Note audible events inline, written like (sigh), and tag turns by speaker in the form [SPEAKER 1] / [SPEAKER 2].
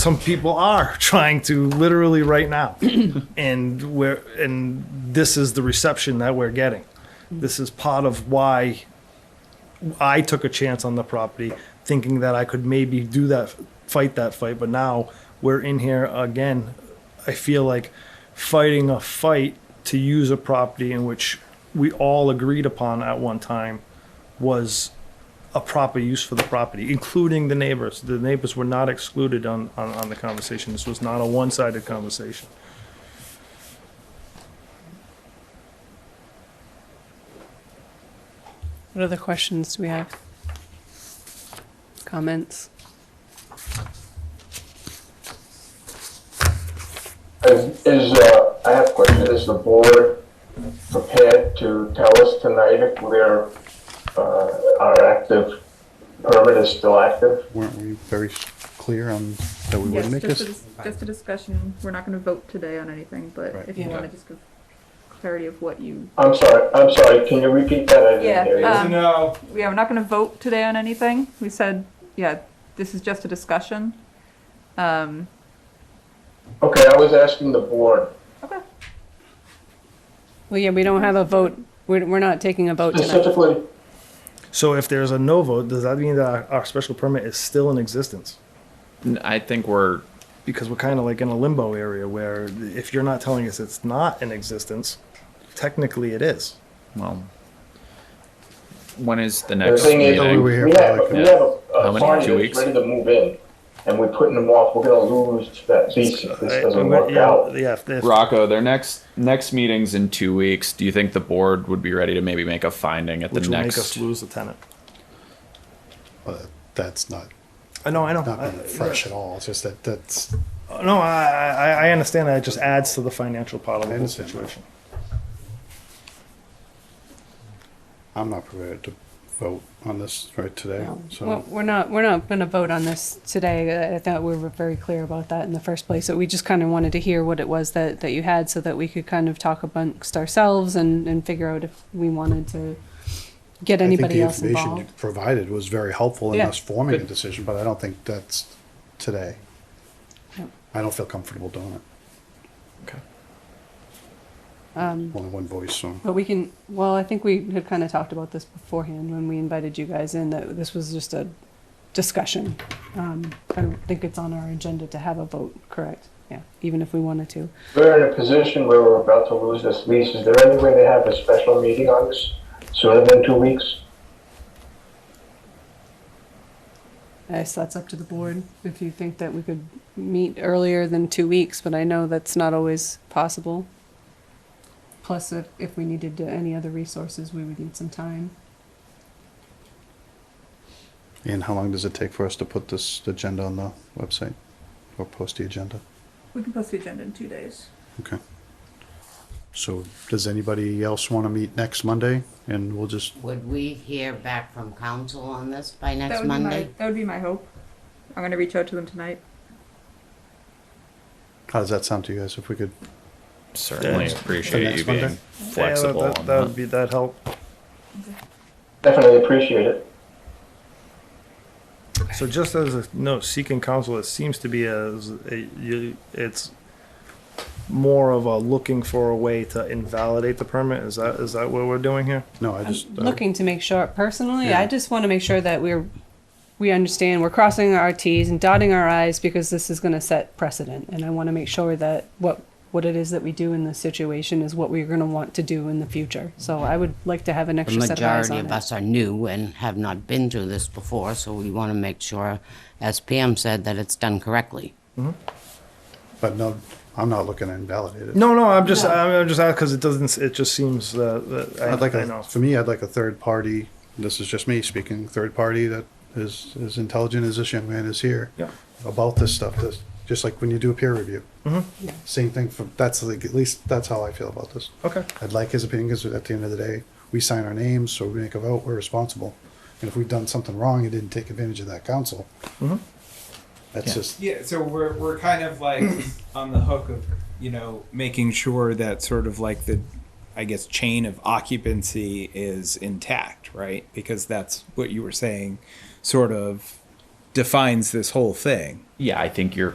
[SPEAKER 1] some people are (laughs) trying to literally right now. and we're and this is the reception that we're getting. This is part of why I took a chance on the property, thinking that I could maybe do that, fight that fight. But now we're in here again. I feel like fighting a fight to use a property in which we all agreed upon at one time was a proper use for the property, including the neighbors. The neighbors were not excluded on, on, on the conversation. This was not a one-sided conversation.
[SPEAKER 2] What other questions do we have? Comments?
[SPEAKER 3] Is, is, uh, I have a question, is the board prepared to tell us tonight if we're, uh, our active permit is still active?
[SPEAKER 4] Weren't we very s- clear on that we
[SPEAKER 5] Yes,
[SPEAKER 4] wouldn't make
[SPEAKER 5] just a,
[SPEAKER 4] this?
[SPEAKER 5] dis- just a discussion. We're not gonna vote today on anything, but
[SPEAKER 4] Right.
[SPEAKER 5] if you
[SPEAKER 2] Yeah.
[SPEAKER 5] wanna just give clarity of what you,
[SPEAKER 3] I'm sorry, I'm sorry, can you repeat that? I didn't hear
[SPEAKER 5] Yeah,
[SPEAKER 3] you.
[SPEAKER 5] um, yeah, we're not gonna vote today on anything. We said, yeah, this is just a discussion. Um,
[SPEAKER 3] Okay, I was asking the board.
[SPEAKER 5] okay,
[SPEAKER 2] Well, yeah, we don't have a vote. We're, we're not taking a vote tonight.
[SPEAKER 3] Specifically,
[SPEAKER 1] So if there's a no vote, does that mean that our, our special permit is still in existence?
[SPEAKER 6] N- I think we're
[SPEAKER 1] Because we're kind of like in a limbo area where if you're not telling us it's not in existence, technically it is.
[SPEAKER 6] well. When is the
[SPEAKER 3] the
[SPEAKER 6] next
[SPEAKER 3] thing is,
[SPEAKER 4] Oh,
[SPEAKER 6] meeting?
[SPEAKER 4] we were here
[SPEAKER 3] we
[SPEAKER 4] for
[SPEAKER 3] have,
[SPEAKER 4] like a-
[SPEAKER 3] we have a-
[SPEAKER 6] How
[SPEAKER 3] a
[SPEAKER 6] many?
[SPEAKER 3] party
[SPEAKER 6] Two
[SPEAKER 3] that's
[SPEAKER 6] weeks?
[SPEAKER 3] ready to move in, and we're putting them off, we're gonna lose that lease if this doesn't
[SPEAKER 1] Yeah,
[SPEAKER 3] work out.
[SPEAKER 1] Yeah, if- if-
[SPEAKER 6] Rocco, their next next meeting's in two weeks. Do you think the board would be ready to maybe make a finding at
[SPEAKER 1] which
[SPEAKER 6] the
[SPEAKER 1] will make us
[SPEAKER 6] next?
[SPEAKER 1] lose the tenant.
[SPEAKER 4] But that's not,
[SPEAKER 1] I know, I know.
[SPEAKER 4] not
[SPEAKER 1] I-
[SPEAKER 4] been fresh at all, it's just that, that's,
[SPEAKER 1] No, I, I, I understand that. It just adds to the financial part of
[SPEAKER 4] I
[SPEAKER 1] the whole
[SPEAKER 4] understand.
[SPEAKER 1] situation.
[SPEAKER 4] I'm not prepared to vote on this right today,
[SPEAKER 2] Well,
[SPEAKER 4] so.
[SPEAKER 2] We're not, we're not going to vote on this today. I- I thought we were very clear about that in the first place. So we just kind of wanted to hear what it was that, that you had so that we could kind of talk amongst ourselves and, and figure out if we wanted to get
[SPEAKER 4] I think the
[SPEAKER 2] anybody else
[SPEAKER 4] information you
[SPEAKER 2] involved.
[SPEAKER 4] Provided was very helpful in
[SPEAKER 2] Yeah.
[SPEAKER 4] us forming a decision, but I don't think that's today.
[SPEAKER 2] Yep.
[SPEAKER 4] I don't feel comfortable doing it,
[SPEAKER 6] Okay.
[SPEAKER 2] Um,
[SPEAKER 4] only one voice, so.
[SPEAKER 2] But we can, well, I think we had kind of talked about this beforehand when we invited you guys in, that this was just a discussion. Um, I don't think it's on our agenda to have a vote, correct? Yeah, even if we wanted to.
[SPEAKER 3] We're in a position where we're about to lose this lease, is there any way to have a special meeting on this sooner than two weeks?
[SPEAKER 2] I guess that's up to the board, if you think that we could meet earlier than two weeks, but I know that's not always possible. Plus, if, if we needed to- any other resources, we would need some time.
[SPEAKER 4] And how long does it take for us to put this agenda on the website or post the agenda?
[SPEAKER 5] we can post the agenda in two days.
[SPEAKER 4] Okay. So does anybody else want to meet next Monday? And we'll just,
[SPEAKER 7] Would we hear back from council on this by
[SPEAKER 5] That
[SPEAKER 7] next
[SPEAKER 5] would be my,
[SPEAKER 7] Monday?
[SPEAKER 5] that would be my hope. I'm gonna reach out to them tonight.
[SPEAKER 4] how does that sound to you guys? If we could,
[SPEAKER 6] Certainly
[SPEAKER 1] Yeah.
[SPEAKER 4] The
[SPEAKER 6] appreciate
[SPEAKER 4] next
[SPEAKER 6] you being
[SPEAKER 4] Monday?
[SPEAKER 6] flexible.
[SPEAKER 1] Yeah, that- that,
[SPEAKER 6] on
[SPEAKER 1] that
[SPEAKER 6] that.
[SPEAKER 1] would be that help.
[SPEAKER 3] Definitely appreciate it.
[SPEAKER 1] So just as a note, seeking counsel, it seems to be as a, you, it's more of a looking for a way to invalidate the permit. Is that is that what we're doing here?
[SPEAKER 4] no, I
[SPEAKER 2] I'm
[SPEAKER 4] just. uh, I-
[SPEAKER 2] looking to make sure, personally, I
[SPEAKER 4] Yeah.
[SPEAKER 2] just want to make sure that we're, we understand, we're crossing our Ts and dotting our Is because this is going to set precedent. And I want to make sure that what, what it is that we do in this situation is what we're going to want to do in the future. So I would like to have an
[SPEAKER 7] The
[SPEAKER 2] extra set of eyes
[SPEAKER 7] majority
[SPEAKER 2] on
[SPEAKER 7] of
[SPEAKER 2] it.
[SPEAKER 7] us are new and have not been through this before, so we want to make sure, as Pam said, that it's done correctly.
[SPEAKER 4] But no, I'm not looking to invalidate it.
[SPEAKER 1] No, no. I'm just I'm, I'm just because it doesn't. It just seems uh, that I,
[SPEAKER 4] I'd like
[SPEAKER 1] I
[SPEAKER 4] a,
[SPEAKER 1] know.
[SPEAKER 4] for me, I'd like a third party, this is just me speaking, third party that is as intelligent as this young man is here.
[SPEAKER 1] Yeah.
[SPEAKER 4] About this stuff, this, just like when you do a peer review.
[SPEAKER 1] Mm-hmm.
[SPEAKER 4] Same thing for, that's like, at least that's how I feel about this.
[SPEAKER 1] Okay.
[SPEAKER 4] I'd like his opinion because at the end of the day, we sign our names, so we make a vote, we're responsible. And if we've done something wrong and didn't take advantage of that council,
[SPEAKER 1] Mm-hmm.
[SPEAKER 4] that's just,
[SPEAKER 8] Yeah, so we're we're kind of like on the hook of you know making sure that sort of like the I guess chain of occupancy is intact, right? Because that's what you were saying, sort of defines this whole thing.
[SPEAKER 6] yeah, I think you're